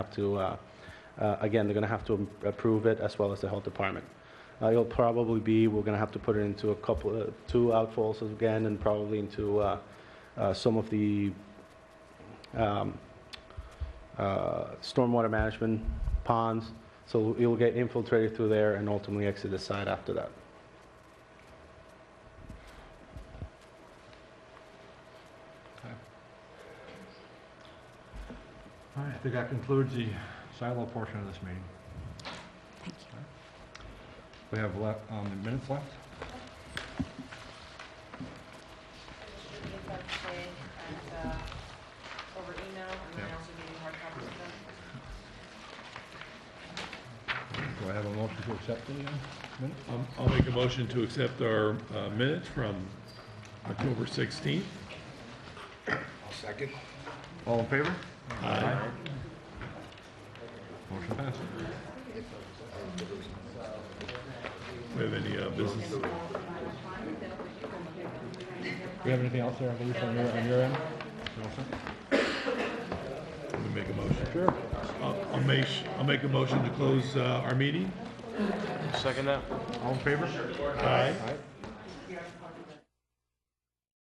have to, uh, uh, again, they're going to have to approve it as well as the health department. Uh, It'll probably be, we're going to have to put it into a couple, uh, two outfalls again, and probably into uh, uh, some of the um, uh, stormwater management ponds, so it'll get infiltrated through there and ultimately exit the site after that. All right, I think that concludes the silo portion of this meeting. Thank you. We have left, um, the minutes left. Should get that today and, uh, over email, and then I Yeah. also gave you hard copies of them. Do I have a motion to accept the uh, minutes? Um, I'll make a motion to accept our uh, minutes from October 16th. All in favor? Aye. Motion passed. We have any uh, business? Do you have anything else there, Luis, on your, on your end? You all set? Let me make a motion. Sure. I'll make, I'll make a motion to close uh, our meeting. All in favor? Aye. Aye.